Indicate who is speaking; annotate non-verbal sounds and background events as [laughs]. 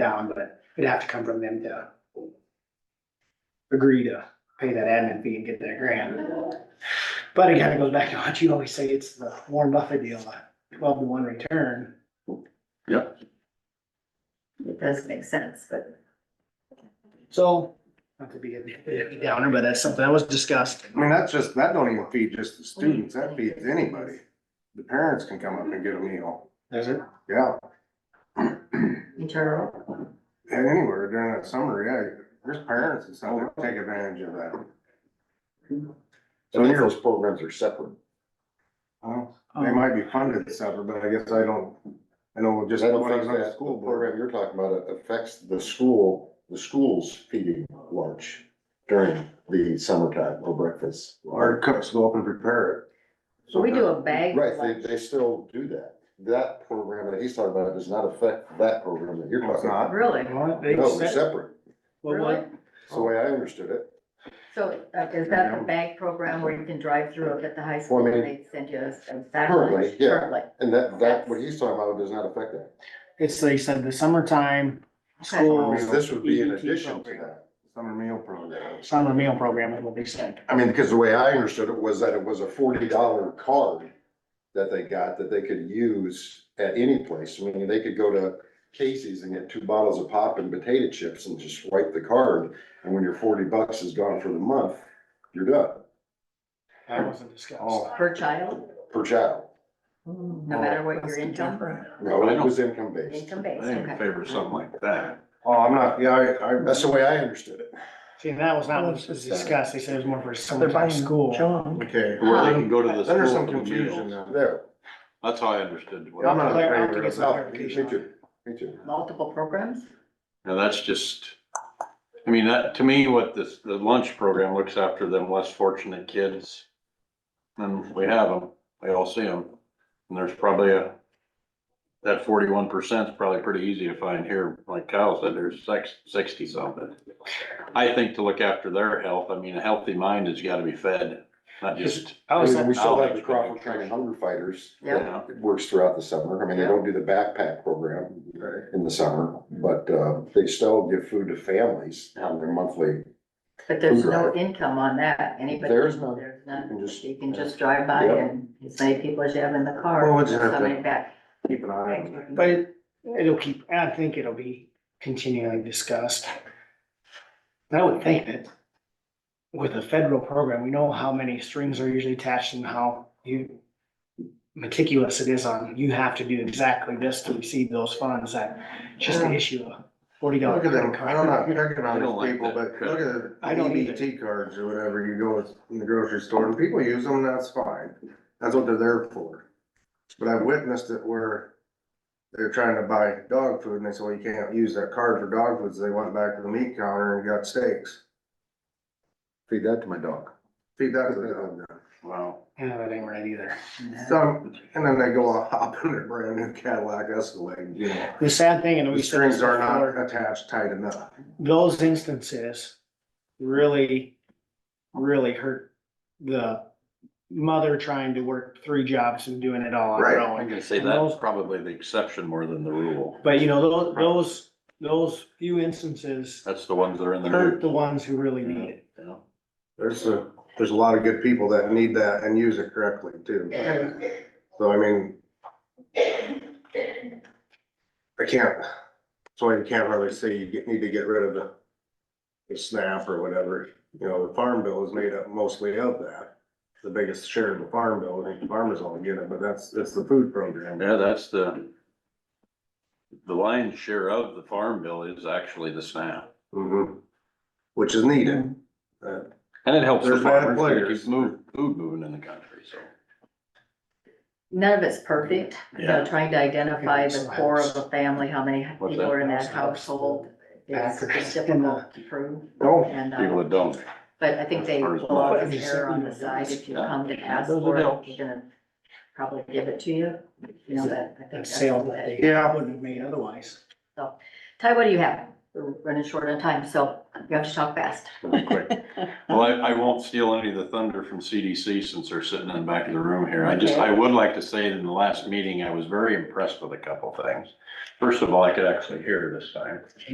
Speaker 1: town, but it'd have to come from them to agree to pay that admin fee and get that grant. But again, it goes back to what you always say, it's the Warren Buffett deal, a twelve to one return.
Speaker 2: It does make sense, but
Speaker 1: So, not to be a a downer, but that's something that was discussed.
Speaker 3: I mean, that's just, that don't even feed just the students, that feeds anybody. The parents can come up and get a meal,
Speaker 1: There's it.
Speaker 3: yeah. [clears throat]
Speaker 2: internal.
Speaker 3: And anywhere during that summer, yeah, there's parents and stuff that take advantage of that.
Speaker 4: So any of those programs are separate.
Speaker 3: Well,
Speaker 1: Um, Oh.
Speaker 3: They might be funded separate, but I guess I don't, I know just
Speaker 4: I don't
Speaker 3: when I was
Speaker 4: think
Speaker 3: on the
Speaker 4: that
Speaker 3: school board.
Speaker 4: program you're talking about affects the school, the school's feeding lunch during the summertime or breakfast.
Speaker 3: Our cooks go up and prepare it.
Speaker 2: So we do a bag.
Speaker 4: Right, they,
Speaker 2: lunch.
Speaker 4: they still do that. That program that he's talking about does not affect that program that you're
Speaker 3: No, it's
Speaker 4: talking about.
Speaker 3: not.
Speaker 2: Really?
Speaker 1: Well, they
Speaker 4: No, they're
Speaker 1: set-
Speaker 4: separate.
Speaker 1: well,
Speaker 2: Really?
Speaker 1: what-
Speaker 4: That's the way I understood it.
Speaker 2: So uh, is that the bag program where you can drive through it at the high school
Speaker 4: Well, I
Speaker 2: and
Speaker 4: mean,
Speaker 2: they send you a a sack
Speaker 4: currently,
Speaker 2: lunch?
Speaker 4: yeah.
Speaker 2: Currently,
Speaker 4: And that, that, what he's talking about does not affect that.
Speaker 1: It's, they said the summertime
Speaker 3: I
Speaker 1: school
Speaker 3: mean,
Speaker 4: Because This would be in
Speaker 1: EET
Speaker 3: E
Speaker 4: addition to
Speaker 1: program.
Speaker 4: that.
Speaker 3: Summer meal program.
Speaker 1: summer meal program is what they said.
Speaker 4: I mean, because the way I understood it was that it was a forty dollar card that they got that they could use at any place. I mean, they could go to Casey's and get two bottles of pop and potato chips and just swipe the card. And when your forty bucks is gone for the month, you're done
Speaker 1: That wasn't discussed.
Speaker 3: Oh.
Speaker 2: per child,
Speaker 4: per child.
Speaker 1: Hmm.
Speaker 2: no matter what your income,
Speaker 4: No, it was income based.
Speaker 2: income based,
Speaker 5: I ain't in
Speaker 2: okay.
Speaker 5: favor of something like that.
Speaker 3: Oh, I'm not, yeah, I, I,
Speaker 4: That's the way I understood it.
Speaker 1: See, that was not what was discussed. They said it was more for summertime school.
Speaker 3: okay.
Speaker 5: Where they can go to the
Speaker 3: Then there's some
Speaker 5: school for the
Speaker 3: confusion
Speaker 5: meals.
Speaker 3: now.
Speaker 4: There.
Speaker 5: That's how I understood. what-
Speaker 3: I'm not in
Speaker 1: Claire, I'll have to
Speaker 3: favor
Speaker 1: get
Speaker 3: of
Speaker 1: some
Speaker 3: that.
Speaker 4: Me
Speaker 1: clarification on it.
Speaker 4: too, me too.
Speaker 2: Multiple programs?
Speaker 5: Now, that's just, I mean, that, to me, what this, the lunch program looks after them less fortunate kids. And we have them, we all see them. And there's probably a, that forty-one percent is probably pretty easy to find here, like Kyle said, there's six, sixty something. I think to look after their health, I mean, a healthy mind has gotta be fed, not just,
Speaker 1: I
Speaker 4: I
Speaker 1: was,
Speaker 4: mean, we still have the
Speaker 5: knowledge.
Speaker 4: Crawford County Hunger Fighters.
Speaker 2: Yeah.
Speaker 4: that Works throughout the summer. I mean, they don't do the backpack program in the summer, but, uh, they still give food to families on their monthly.
Speaker 2: But there's no income on that, anybody.
Speaker 4: There's none.
Speaker 2: There's none.
Speaker 4: You can just-
Speaker 2: You can just drive by
Speaker 4: Yeah.
Speaker 2: and as many people as you have in the car,
Speaker 3: Well, we'll just have
Speaker 2: so
Speaker 3: to-
Speaker 2: many back.
Speaker 3: Keep an eye on it.
Speaker 1: but it- it'll keep, I think it'll be continually discussed. I would think that with a federal program, we know how many strings are usually attached and how you meticulous it is on, you have to do exactly this to receive those funds. That just the issue of forty dollar.
Speaker 3: Look at them, I don't know, picking
Speaker 5: I
Speaker 3: on
Speaker 5: don't
Speaker 3: these
Speaker 5: like
Speaker 3: people,
Speaker 5: that
Speaker 3: but look at
Speaker 1: I don't
Speaker 3: the EBT cards or whatever, you go in the grocery store, and people use them, that's fine, that's what they're there for. But I've witnessed it where they're trying to buy dog food, and they say, well, you can't use that card for dog food, so they went back to the meat counter and got steaks.
Speaker 4: Feed that to my dog.
Speaker 3: Feed that to the dog.
Speaker 5: wow.
Speaker 1: Yeah, that ain't right either.
Speaker 3: So, and then they go [laughs] hop in their brand new Cadillac Escalade, you know,
Speaker 1: The sad thing, and we
Speaker 3: the
Speaker 1: said this
Speaker 3: strings are
Speaker 1: before,
Speaker 3: not attached tight enough.
Speaker 1: those instances really, really hurt the mother trying to work three jobs and doing it all on her
Speaker 3: Right.
Speaker 1: own.
Speaker 5: I'm gonna say
Speaker 1: And
Speaker 5: that's
Speaker 1: those-
Speaker 5: probably the exception more than the rule.
Speaker 1: But you know, tho- those, those few instances
Speaker 5: That's the ones that are in the
Speaker 1: hurt
Speaker 5: news.
Speaker 1: the ones who really need it.
Speaker 5: you know?
Speaker 3: There's a, there's a lot of good people that need that and use it correctly too. So I mean. I can't, so you can't really say you get- need to get rid of the. The SNAP or whatever, you know, the farm bill is made up mostly of that. The biggest share of the farm bill, I think the farmers all get it, but that's, that's the food program.
Speaker 5: Yeah, that's the, the lion's share of the farm bill is actually the SNAP.
Speaker 3: Mhm. Which is needed. Uh,
Speaker 5: And it helps the
Speaker 3: There's bad
Speaker 5: farmers, but it
Speaker 3: players.
Speaker 5: keeps move, food moving in the country, so.
Speaker 2: None of it's perfect, you know,
Speaker 5: Yeah.
Speaker 2: trying to identify
Speaker 1: Yeah,
Speaker 2: the
Speaker 1: so
Speaker 2: core
Speaker 1: that's-
Speaker 2: of a family, how many
Speaker 5: What's
Speaker 2: people
Speaker 5: that?
Speaker 2: are in that
Speaker 1: That's-
Speaker 2: household. It's
Speaker 1: Backers
Speaker 2: it's
Speaker 1: in
Speaker 2: difficult to prove,
Speaker 3: No,
Speaker 2: and,
Speaker 5: People
Speaker 2: uh,
Speaker 5: that don't,
Speaker 2: but I think they
Speaker 5: Or is
Speaker 2: will
Speaker 5: not.
Speaker 2: always err on the side, if you
Speaker 5: Yeah.
Speaker 2: come to ask
Speaker 5: Those
Speaker 2: for it,
Speaker 5: adults.
Speaker 2: you're gonna probably give it to you, you know, that, I think
Speaker 1: That
Speaker 2: that's.
Speaker 1: sale that they
Speaker 3: Yeah.
Speaker 1: wouldn't have made otherwise.
Speaker 2: Ty, what do you have? We're running short on time, so you have to talk fast.
Speaker 5: real
Speaker 3: [laughs]
Speaker 5: quick. Well, I, I won't steal any of the thunder from CDC since they're sitting in the back of the room here. I just,
Speaker 2: Okay.
Speaker 5: I would like to say that in the last meeting, I was very impressed with a couple things. First of all, I could actually hear this time.